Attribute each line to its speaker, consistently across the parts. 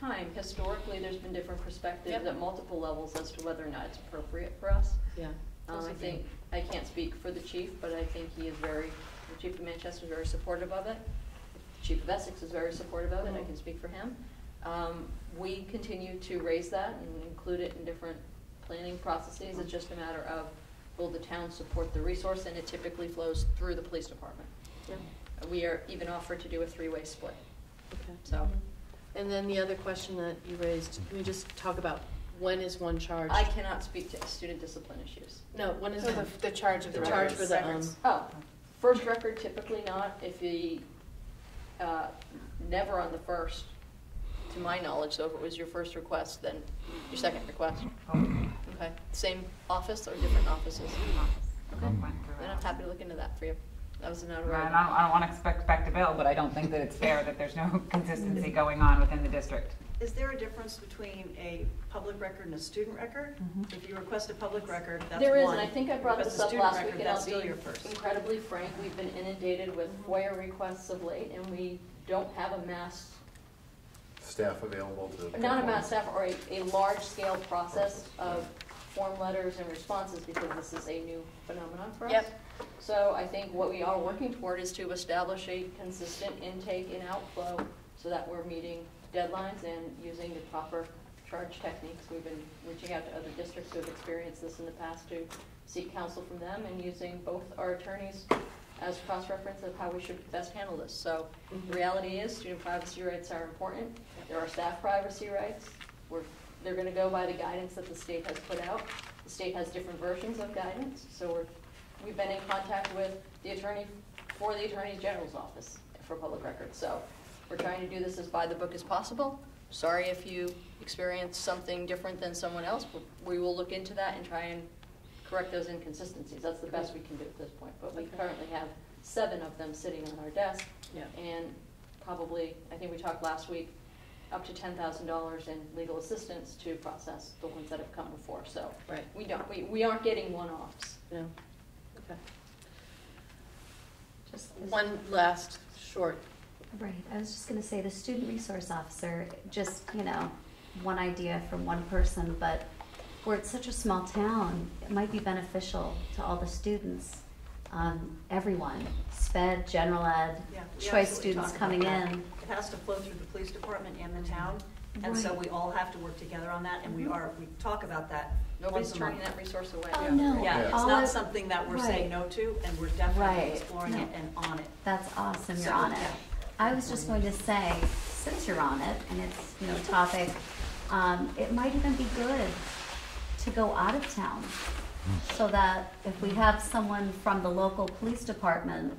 Speaker 1: time, historically, there's been different perspectives
Speaker 2: Yep.
Speaker 1: at multiple levels as to whether or not it's appropriate for us.
Speaker 2: Yeah.
Speaker 1: Um, I think, I can't speak for the chief, but I think he is very, the chief of Manchester is very supportive of it. The Chief of Essex is very supportive of it, I can speak for him. Um, we continue to raise that and include it in different planning processes. It's just a matter of, will the town support the resource, and it typically flows through the police department.
Speaker 2: Yeah,
Speaker 1: We are even offered to do a three-way split,
Speaker 2: okay.
Speaker 1: so.
Speaker 2: And then the other question that you raised, can we just talk about when is one charged?
Speaker 1: I cannot speak to student discipline issues.
Speaker 2: No, when is
Speaker 3: So the,
Speaker 2: one?
Speaker 3: the charge of the
Speaker 2: The charge
Speaker 3: records.
Speaker 2: for the, um,
Speaker 3: Records.
Speaker 1: Oh, first record typically not, if you, uh, never on the first, to my knowledge, so if it was your first request, then your second request. Okay, same office or different offices? Okay, then I'm happy to look into that for you. That was another.
Speaker 4: And I don't, I don't want to expect back to Bill, but I don't think that it's fair that there's no consistency going on within the district.
Speaker 5: Is there a difference between a public record and a student record? If you request a public record, that's one.
Speaker 1: Mm-hmm. There is, and I think I
Speaker 5: If you
Speaker 1: brought
Speaker 5: request
Speaker 1: this
Speaker 5: a
Speaker 1: up
Speaker 5: student
Speaker 1: last
Speaker 5: record,
Speaker 1: week, and
Speaker 5: that's
Speaker 1: I'll
Speaker 5: still
Speaker 1: be
Speaker 5: your first. Mm-hmm.
Speaker 1: incredibly frank, we've been inundated with FOIA requests of late, and we don't have a mass
Speaker 6: Staff available to.
Speaker 1: not a mass staff or a, a large-scale process of form letters and responses, because this is a new phenomenon for us.
Speaker 2: Yep.
Speaker 1: So I think what we are working toward is to establish a consistent intake and outflow, so that we're meeting deadlines and using the proper charge techniques. We've been reaching out to other districts who have experienced this in the past to seek counsel from them, and using both our attorneys as cross-reference of how we should best handle this. So the reality is, student privacy rights are important. There are staff privacy rights. We're, they're gonna go by the guidance that the state has put out. The state has different versions of guidance, so we're, we've been in contact with the attorney, for the Attorney General's office for public records. So we're trying to do this as by the book as possible. Sorry if you experience something different than someone else, but we will look into that and try and correct those inconsistencies. That's the best we can do at this point, but we
Speaker 2: Okay.
Speaker 1: currently have seven of them sitting on our desk.
Speaker 2: Yeah.
Speaker 1: And probably, I think we talked last week, up to ten thousand dollars in legal assistance to process the ones that have come before, so.
Speaker 2: Right.
Speaker 1: We don't, we, we aren't getting one-offs.
Speaker 2: No, okay. Just one last short,
Speaker 7: Right, I was just gonna say, the student resource officer, just, you know, one idea from one person, but we're at such a small town, it might be beneficial to all the students, um, everyone, sped, general ed,
Speaker 5: Yeah, we
Speaker 7: choice
Speaker 5: absolutely
Speaker 7: students
Speaker 5: talked about
Speaker 7: coming
Speaker 5: that.
Speaker 7: in.
Speaker 5: It has to flow through the police department and
Speaker 1: Mm-hmm.
Speaker 5: the town, and so
Speaker 7: Right.
Speaker 5: we all have to work together on that, and we are, we talk about that
Speaker 1: Nobody's
Speaker 5: once a month.
Speaker 1: turning that resource away.
Speaker 7: Oh, no.
Speaker 5: Yeah, it's
Speaker 7: All
Speaker 5: not
Speaker 7: of-
Speaker 5: something that we're
Speaker 7: Right.
Speaker 5: saying no to, and we're definitely
Speaker 7: Right.
Speaker 5: exploring it
Speaker 7: No.
Speaker 5: and on it.
Speaker 7: That's awesome,
Speaker 5: So,
Speaker 7: you're on
Speaker 5: yeah.
Speaker 7: it. I was just going to say, since you're on it, and it's, you know, topic, um, it might even be good to go out of town. So that if we have someone from the local police department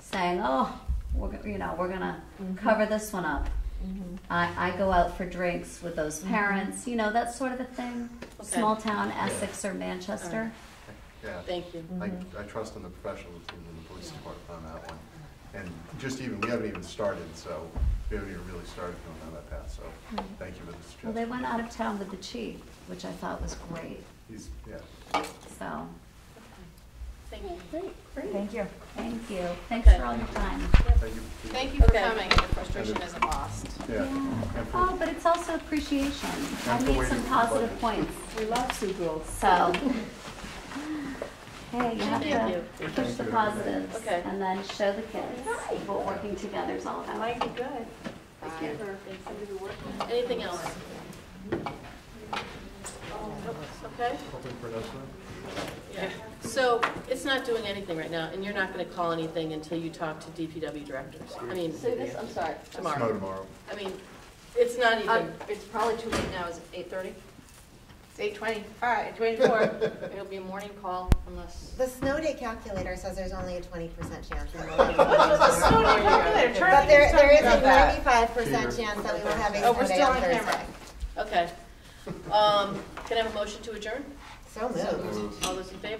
Speaker 7: saying, oh, we're, go- you know, we're gonna
Speaker 5: Mm-hmm.
Speaker 7: cover this one up.
Speaker 2: Mm-hmm.
Speaker 7: I, I go out for drinks with those
Speaker 5: Mm-hmm.
Speaker 7: parents, you know, that sort of a thing.
Speaker 2: Okay.
Speaker 7: Small town Essex or Manchester.
Speaker 6: Yeah,
Speaker 2: thank you.
Speaker 6: I,
Speaker 7: Mm-hmm.
Speaker 6: I trust in the professionals in the police department on that one. And just even, we haven't even started, so we haven't even really started going down that path, so
Speaker 7: Right.
Speaker 6: thank you for the suggestion.
Speaker 7: Mm-hmm. Well, they went out of town with the chief, which I thought was great,
Speaker 6: He's, yeah.
Speaker 7: so.
Speaker 2: Thank you.
Speaker 3: Thank you.
Speaker 7: Thank you. Thanks for all your time.
Speaker 6: Thank you.
Speaker 3: Thank you for
Speaker 2: Okay.
Speaker 3: coming. The frustration isn't lost.
Speaker 6: Yeah. And for-
Speaker 7: Oh, but it's also appreciation. I
Speaker 6: And for
Speaker 7: made
Speaker 6: waiting
Speaker 7: some
Speaker 6: for the
Speaker 7: positive
Speaker 6: budget.
Speaker 7: points,
Speaker 8: We love Sue Grove.
Speaker 7: so. Hey, you have
Speaker 2: Thank
Speaker 7: to push the positives
Speaker 2: Okay.
Speaker 7: and then show the kids what working together is all about.
Speaker 8: Might be good. Let's give her something to work with.
Speaker 2: Anything else? Nope, Okay,
Speaker 6: Hoping for another one.
Speaker 2: yeah. So it's not doing anything right now, and you're not gonna call anything until you talk to DPW directors. I mean,
Speaker 1: Say this, I'm sorry.
Speaker 6: No,
Speaker 2: tomorrow.
Speaker 6: tomorrow.
Speaker 2: I mean, it's not
Speaker 1: Um,
Speaker 2: even,
Speaker 1: it's probably too late now, is it eight thirty? It's eight twenty, all right, twenty-four. It'll be a morning call unless.
Speaker 9: The snow day calculator says there's only a twenty percent chance that we'll have But
Speaker 3: But
Speaker 9: there, there is a ninety-five percent chance that we will have a
Speaker 3: Oh, we're
Speaker 9: snow day
Speaker 3: still
Speaker 9: on
Speaker 3: on camera.
Speaker 9: Thursday.
Speaker 2: okay. Um, Can I have a motion to adjourn?
Speaker 9: So moved.
Speaker 2: All those in favor?